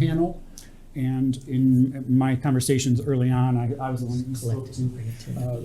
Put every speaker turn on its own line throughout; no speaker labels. panel. And in my conversations early on, I, I was the one who spoke to uh,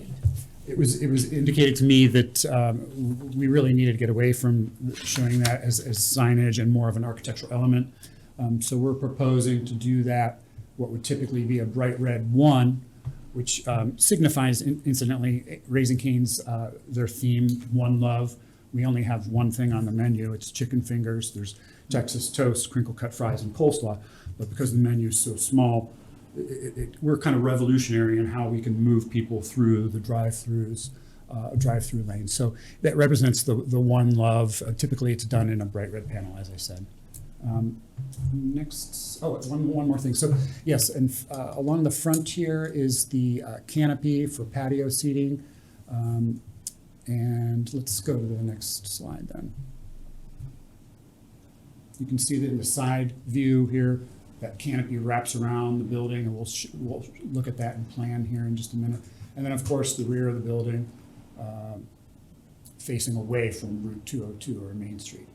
it was, it was indicated to me that um, w- we really needed to get away from showing that as, as signage and more of an architectural element. Um, So we're proposing to do that, what would typically be a bright red one, which um, signifies in- incidentally, Raising Cane's, uh, their theme, One Love. We only have one thing on the menu, it's chicken fingers, there's Texas toast, crinkle cut fries, and coleslaw. But because the menu is so small, it, it, we're kind of revolutionary in how we can move people through the drive-throughs, uh, drive-through lanes. So that represents the, the one love. Uh, Typically, it's done in a bright red panel, as I said. Um, Next, oh, one, one more thing. So, yes, and uh, along the front here is the uh, canopy for patio seating. Um, And let's go to the next slide then. You can see that in the side view here, that canopy wraps around the building, and we'll, sh- we'll look at that in plan here in just a minute. And then, of course, the rear of the building um, facing away from Route 202 or Main Street.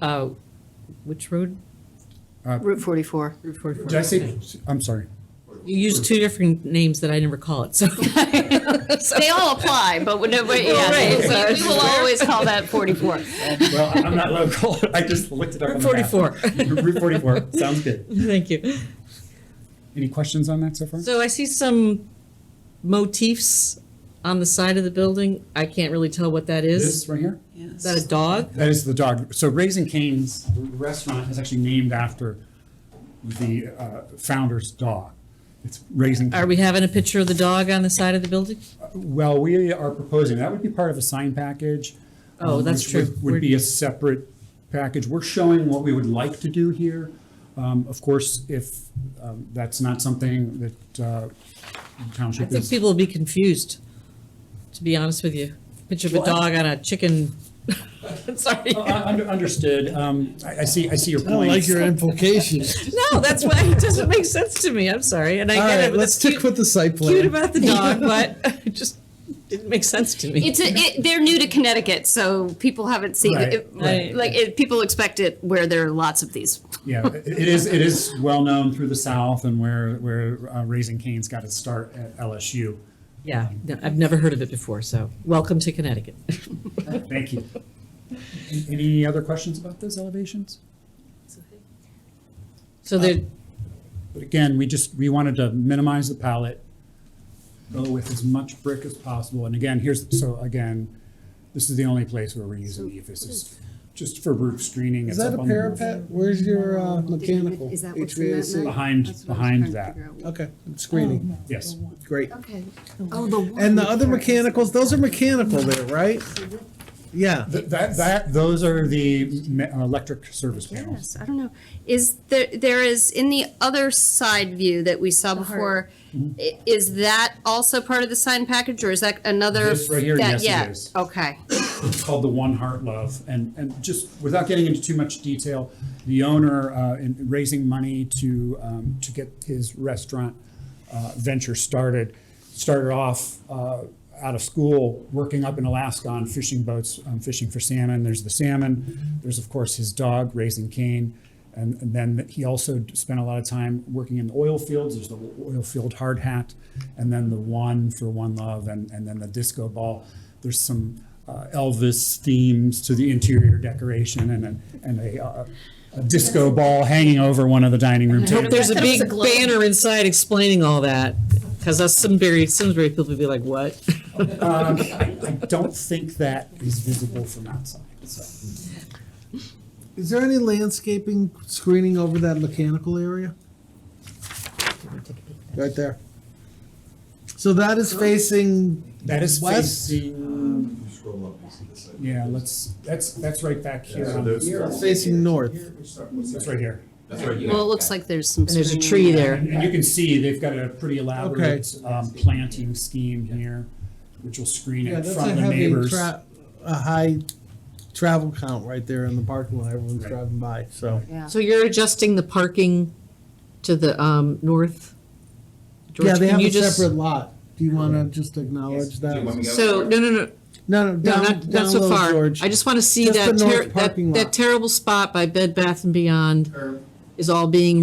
Uh, which road?
Route 44.
Route 44.
Did I say, I'm sorry.
You used two different names that I never call it, so.
They all apply, but whenever, yeah,
Right.
we we will always call that 44.
Well, I'm not local, I just looked it up on the map.
Forty-four,
Route 44, sounds good.
thank you.
Any questions on that so far?
So I see some motifs on the side of the building. I can't really tell what that is.
This right here?
Is that a dog?
That is the dog. So Raising Cane's restaurant is actually named after the uh, founder's dog. It's Raising.
Are we having a picture of the dog on the side of the building?
Well, we are proposing, that would be part of a sign package.
Oh,
um,
that's
which would-
true.
Would be a separate package. We're showing what we would like to do here. Um, Of course, if um, that's not something that uh, the
I
township
think
is.
people will be confused, to be honest with you. Picture of a
Well, I-
dog on a chicken, sorry.
Oh, I- under- Understood. Um, I I see, I see your
I don't like
point.
your implications.
No, that's why, it doesn't make sense to me, I'm sorry, and I
All
get it,
right,
but
let's
that's
stick
cute,
with the site
cute
plan.
about the dog, but it just didn't make sense to me.
It's, a- it- they're new to Connecticut, so people haven't seen,
Right,
it.
right.
like, it- people expect it where there are lots of these.
Yeah, it it is, it is well-known through the South and where, where uh, Raising Cane's got its start at LSU.
Yeah, no, I've never heard of it before, so welcome to Connecticut.
Thank you. Any other questions about those elevations?
So there,
But again, we just, we wanted to minimize the palette, go with as much brick as possible. And again, here's, so again, this is the only place where we're using the This is just for roof screening. It's
Is that
up
a
on the-
parapet? Where's your uh, mechanical?
Is that what's in that
HVAC?
map? Oh, That's what I
Behind,
was
behind
trying to
that,
figure out.
Okay, screening,
yes.
great.
Okay. Oh, the one.
And the other
there is-
mechanicals, those are mechanical there, right? Yeah.
Th- That, that, those are the me- uh, electric service panels.
Yes, I don't know. Is there, there is, in the other side view that we saw before,
Mm-hmm.
i- is that also part of the sign package, or is that another?
This right here, yes,
that-
it
yeah,
is.
Okay.
It's called the One Heart Love. And, and just without getting into too much detail, the owner, uh, in raising money to, um, to get his restaurant, uh, venture started, started off, uh, out of school, working up in Alaska on fishing boats, um, fishing for salmon. There's the salmon. There's, of course, his dog, Raising Cane. And, and then he also spent a lot of time working in oil fields. There's the oil field hard hat, and then the one for one love, and, and then the disco ball. There's some uh, Elvis themes to the interior decoration, and a, and a, uh, a disco ball hanging over one of the dining room
Oh,
hope
tables.
there's a big banner inside explaining all that, because us Simsbury, Simsbury people would be like, what?
Um, I, I don't think that is visible from outside. So.
Is there any landscaping screening over that mechanical area? Right there. So that is facing,
That is
West?
facing.
You Scroll up, you see the site.
Yeah, let's. That's that's right back here.
Yeah, so
on
those-
here.
it's facing north.
That's right here.
That's right,
Well, it
yeah.
looks like there's some.
And there's a tree
screening.
there.
And, and you can see they've got a pretty elaborate um, planting scheme here, which will screen
Yeah,
it
that's
from
a
the
heavy,
neighbors.
tra- a high travel count right there in the parking lot. Everyone's
Right.
driving by, so.
Yeah.
So you're adjusting the parking to the um, north? George,
Yeah, they
can
have
you
a
just-
separate lot. Do you want to just acknowledge that?
Do you want me to go?
So, no, no, no,
No, no,
no,
down,
not,
down
not so
low,
far.
George.
I just want to see
Just
that,
the north
ter- that
parking lot.
that terrible spot by Bed Bath and Beyond.
Or-
is all being